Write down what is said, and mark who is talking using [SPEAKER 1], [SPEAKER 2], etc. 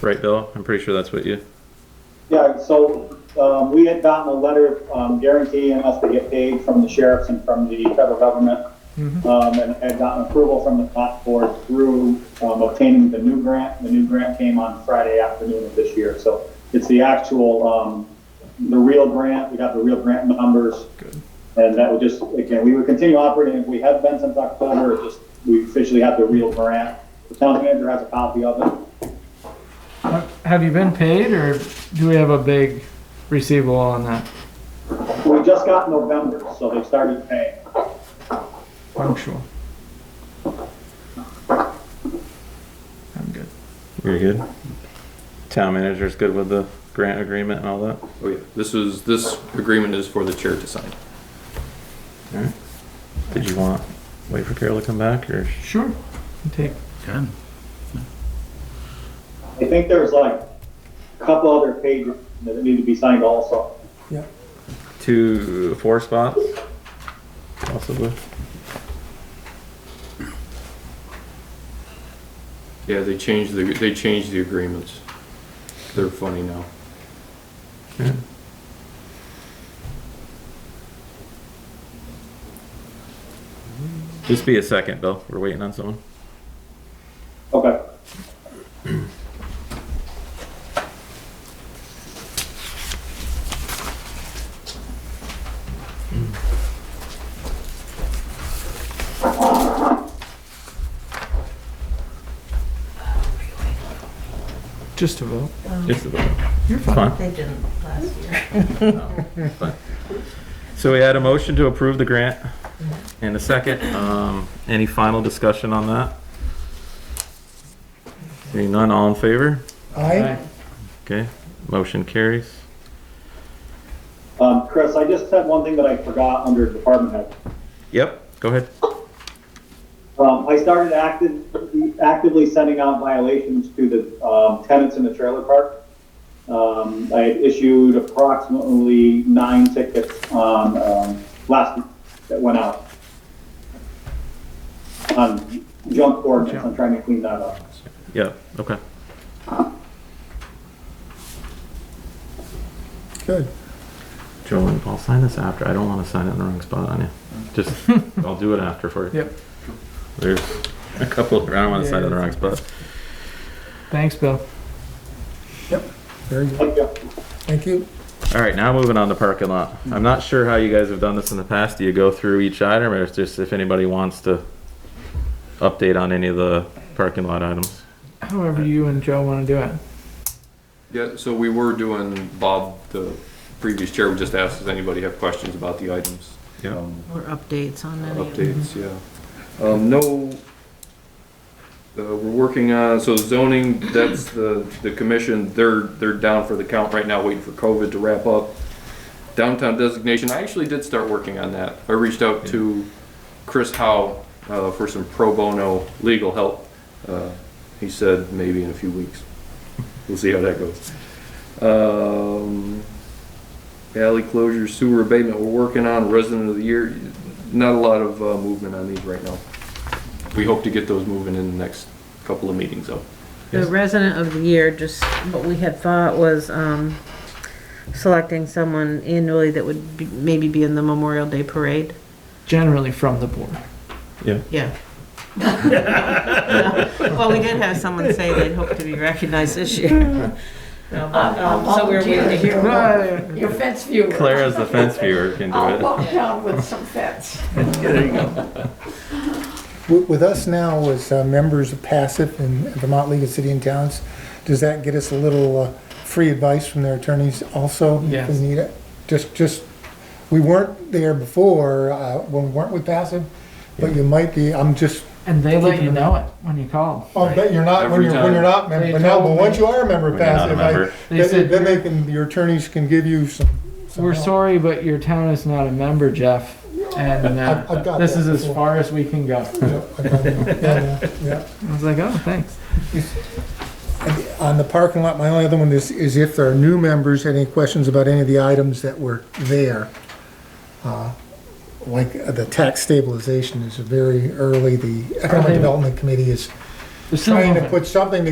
[SPEAKER 1] Right, Bill? I'm pretty sure that's what you,
[SPEAKER 2] Yeah, so, um, we had gotten a letter, um, guaranteeing us to get paid from the sheriffs and from the federal government. Um, and had gotten approval from the comp board through, um, obtaining the new grant. The new grant came on Friday afternoon of this year, so it's the actual, um, the real grant, we got the real grant numbers. And that would just, again, we would continue operating, if we had been since October, it just, we officially have the real grant. The town manager has a copy of it.
[SPEAKER 3] Have you been paid or do we have a big receivable on that?
[SPEAKER 2] We just got November, so they started paying.
[SPEAKER 3] Punctual. I'm good.
[SPEAKER 1] you're good? Town manager's good with the grant agreement and all that?
[SPEAKER 4] Oh, yeah. This is, this agreement is for the chair to sign.
[SPEAKER 1] Alright. Did you want, wait for Carol to come back or?
[SPEAKER 3] Sure. Take
[SPEAKER 5] Good.
[SPEAKER 2] I think there's like a couple other pages that need to be signed also.
[SPEAKER 1] Two, four spots? Possibly.
[SPEAKER 4] Yeah, they changed the, they changed the agreements. They're funny now.
[SPEAKER 1] Yeah. Just be a second, Bill. We're waiting on someone.
[SPEAKER 2] Okay.
[SPEAKER 3] just a vote.
[SPEAKER 1] Just a vote.
[SPEAKER 3] You're
[SPEAKER 1] It's fine.
[SPEAKER 6] Um, They didn't last year.
[SPEAKER 1] So we had a motion to approve the grant and a second. Um, any final discussion on that? Seeing none, all in favor?
[SPEAKER 3] Aye.
[SPEAKER 1] Okay, motion carries.
[SPEAKER 2] Um, Chris, I just had one thing that I forgot under department head.
[SPEAKER 1] Yep, go ahead.
[SPEAKER 2] Um, I started active, actively sending out violations to the, um, tenants in the trailer park. Um, I had issued approximately nine tickets on, um, last, that went out. On junk ordinance, I'm trying to clean that up.
[SPEAKER 1] Yep, okay.
[SPEAKER 5] Good.
[SPEAKER 1] Joan, I'll sign this after. I don't want to sign it in the wrong spot on you. Just, I'll do it after for you.
[SPEAKER 3] Yep.
[SPEAKER 1] There's a couple, I don't want to sign it in the wrong spot.
[SPEAKER 3] Thanks, Bill.
[SPEAKER 5] Very good.
[SPEAKER 2] Thank you.
[SPEAKER 5] Thank you.
[SPEAKER 1] All right, now moving on to parking lot. I'm not sure how you guys have done this in the past. Do you go through each item or it's just if anybody wants to update on any of the parking lot items?
[SPEAKER 3] However you and Joe want to do it.
[SPEAKER 4] Yeah, so we were doing, Bob, the previous chair, just asked, does anybody have questions about the items?
[SPEAKER 1] Yeah.
[SPEAKER 4] Um,
[SPEAKER 6] Or updates on any of them.
[SPEAKER 4] Updates, yeah. Um, no, uh, we're working on, so zoning, that's the, the commission, they're, they're down for the count right now, waiting for COVID to wrap up. Downtown designation, I actually did start working on that. I reached out to Chris Howe, uh, for some pro bono legal help. Uh, He said maybe in a few weeks. We'll see how that goes. Um, alley closure, sewer abatement, we're working on resident of the year. Not a lot of uh, movement on these right now. We hope to get those moving in the next couple of meetings though.
[SPEAKER 6] The resident of the year, just what we had thought was, um, selecting someone annually that would be- maybe be in the Memorial Day Parade.
[SPEAKER 3] Generally from the board.
[SPEAKER 6] Yeah. Well, we did have someone say they'd hope to be recognized this year.
[SPEAKER 7] I'll
[SPEAKER 6] So we're waiting to
[SPEAKER 7] volunteer.
[SPEAKER 6] hear.
[SPEAKER 7] Your fence viewer.
[SPEAKER 1] Claire as the fence viewer can
[SPEAKER 7] I'll
[SPEAKER 1] do it.
[SPEAKER 7] walk down with some fence.
[SPEAKER 8] Wi- With us now as uh, members of passive in Vermont League of City and Towns, does that get us a little uh, free advice from their attorneys also?
[SPEAKER 3] Yes.
[SPEAKER 8] If we need it? Just, just, we weren't there before, uh, when we weren't with passive, but you might be, I'm just,
[SPEAKER 3] And they let you know it when you call.
[SPEAKER 8] I'll bet you're not, when
[SPEAKER 4] Every
[SPEAKER 8] you're, when you're not, mem-
[SPEAKER 3] They
[SPEAKER 8] but no, but
[SPEAKER 3] told
[SPEAKER 8] once
[SPEAKER 3] me-
[SPEAKER 8] you are a member of
[SPEAKER 1] When you're not a
[SPEAKER 8] passive, I-
[SPEAKER 1] member.
[SPEAKER 3] They said
[SPEAKER 8] then then they
[SPEAKER 3] you're-
[SPEAKER 8] can, your attorneys can give you some. some
[SPEAKER 3] We're
[SPEAKER 8] help.
[SPEAKER 3] sorry, but your town is not a member, Jeff. And
[SPEAKER 8] I've- I've
[SPEAKER 3] uh,
[SPEAKER 8] got
[SPEAKER 3] this
[SPEAKER 8] that
[SPEAKER 3] is as
[SPEAKER 8] before.
[SPEAKER 3] far as we can go.
[SPEAKER 8] Yeah, I got it. Yeah, yeah, yeah.
[SPEAKER 3] I was like, oh, thanks.
[SPEAKER 8] On the parking lot, my only other one is, is if there are new members, any questions about any of the items that were there? Uh, Like, uh, the tax stabilization is very early, the
[SPEAKER 3] Are they-
[SPEAKER 8] Economic Development Committee is
[SPEAKER 3] There's some
[SPEAKER 8] trying to
[SPEAKER 3] of it.
[SPEAKER 8] put something